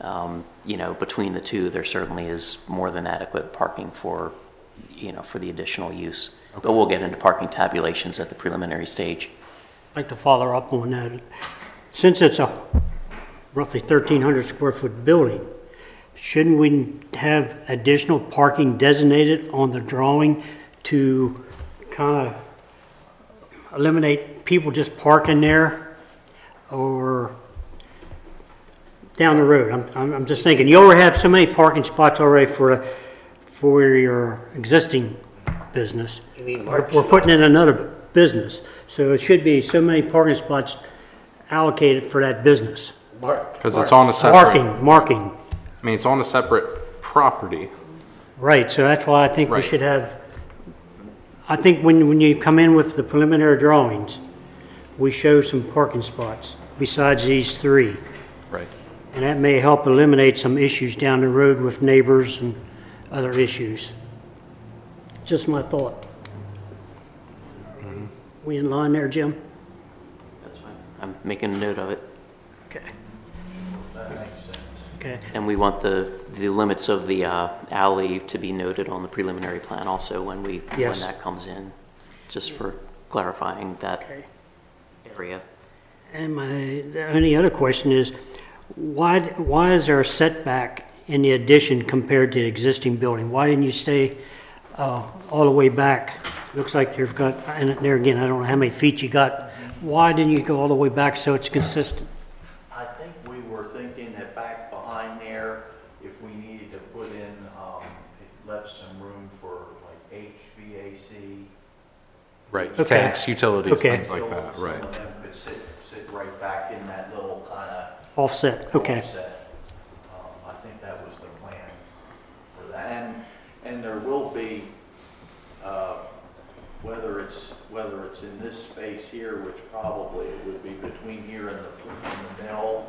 um, you know, between the two, there certainly is more than adequate parking for, you know, for the additional use. But we'll get into parking tabulations at the preliminary stage. I'd like to follow up on that. Since it's a roughly 1,300 square foot building, shouldn't we have additional parking designated on the drawing to kind of eliminate people just parking there or down the road? I'm- I'm, I'm just thinking, you already have so many parking spots already for, for your existing business. You mean We're March? we're putting in another business, so it should be so many parking spots allocated for that business. Mark. Because it's on a separate, Marking, marking, I mean, it's on a separate property. right, so that's why I think we Right. should have, I think when, when you come in with the preliminary drawings, we show some parking spots besides these three, Right. and that may help eliminate some issues down the road with neighbors and other issues. Just my thought. We in line there, Jim? That's fine. I'm making a note of it. Okay. Okay, And we want the, the limits of the uh, alley to be noted on the preliminary plan also when we, when Yes. that comes in, just for clarifying that okay. area. And my, the only other question is, why, why is there a setback in the addition compared to the existing building? Why didn't you stay uh, all the way back? Looks like you've got, and there again, I don't know how many feet you got. Why didn't you go all the way back so it's consistent? I think we were thinking that back behind there, if we needed to put in, um, it left some room for like HVAC. Right. Okay. Tanks, utilities, Okay. things like that, Some right. of them could sit, sit right back in that little kind of Offset, okay, offset. Um, I think that was the plan for that. And, and there will be, uh, whether it's, whether it's in this space here, which probably it would be between here and the, and the mill,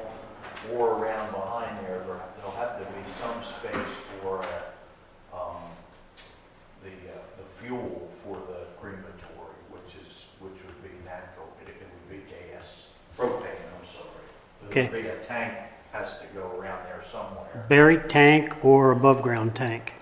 or around behind there, there- there'll have to be some space for, uh, um, the, uh, the fuel for the crematory, which is, which would be natural, it it would be gas, propane, I'm sorry. Okay. There'll be a tank has to go around there somewhere. buried tank or above-ground tank?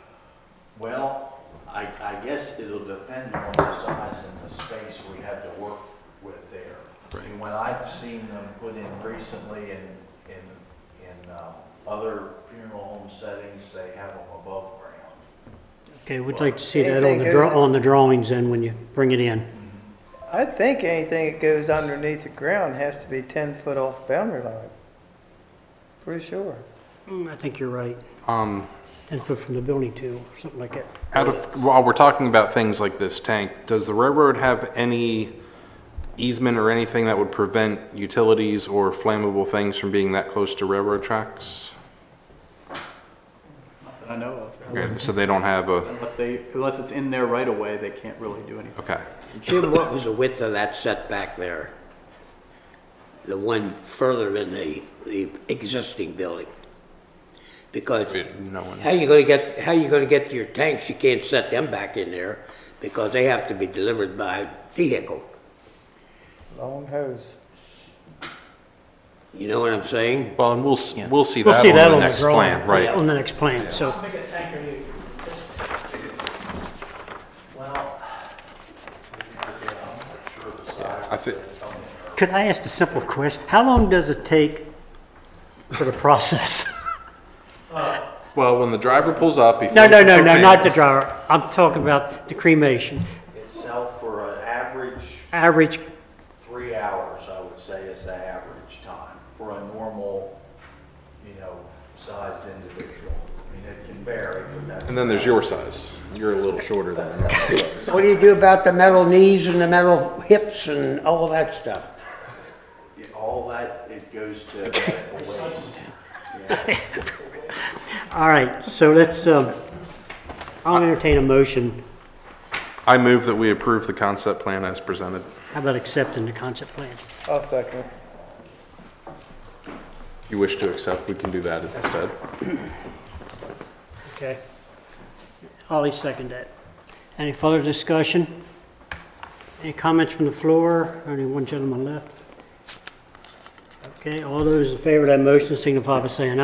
Well, I, I guess it'll depend on the size and the space we have to work with there. I mean, when I've seen them put in recently in, in, in um, other funeral home settings, they have them above ground. Okay, we'd like to see that on Anything the, draw- goes. on the drawings then when you bring it in. I think anything that goes underneath the ground has to be ten foot off boundary line. Pretty sure. Mm, I think you're right, Um, 10 foot from the building too, or something like that. out of, while we're talking about things like this tank, does the railroad have any easement or anything that would prevent utilities or flammable things from being that close to railroad tracks? that I know of. Okay, so they don't have a, Unless they, unless it's in their right of way, they can't really do anything. okay. Jim, what was the width of that setback there? The one further in the, the existing building? Because No one. how you gonna get, how you gonna get to your tanks? You can't set them back in there because they have to be delivered by vehicle. Long hose. You know what I'm saying? Well, and we'll, s- we'll see We'll that see on that the on the next drawing. plan, Yeah, right? On the next plan, so. Well, again, I'm not sure the size. I thi- Could I ask the simple question? How long does it take for the process? Well, when the driver pulls up, he No, fills no, the no, no, propane. not the dryer. I'm talking about the cremation. Itself for an average Average, three hours, I would say, is the average time for a normal, you know, sized individual. I mean, it can vary, but that's. And then there's your size. You're a little shorter than mine. What do you do about the metal knees and the metal hips and all that stuff? All that, it goes to medical waste. all right, so let's, um, I'll entertain a motion. I move that we approve the concept plan as presented. How about accepting the concept plan? I'll second it. If you wish to accept, we can do that instead. Okay. Ollie second that. Any further discussion? Any comments from the floor? Only one gentleman left. Okay, all those in favor of that motion signify by saying aye.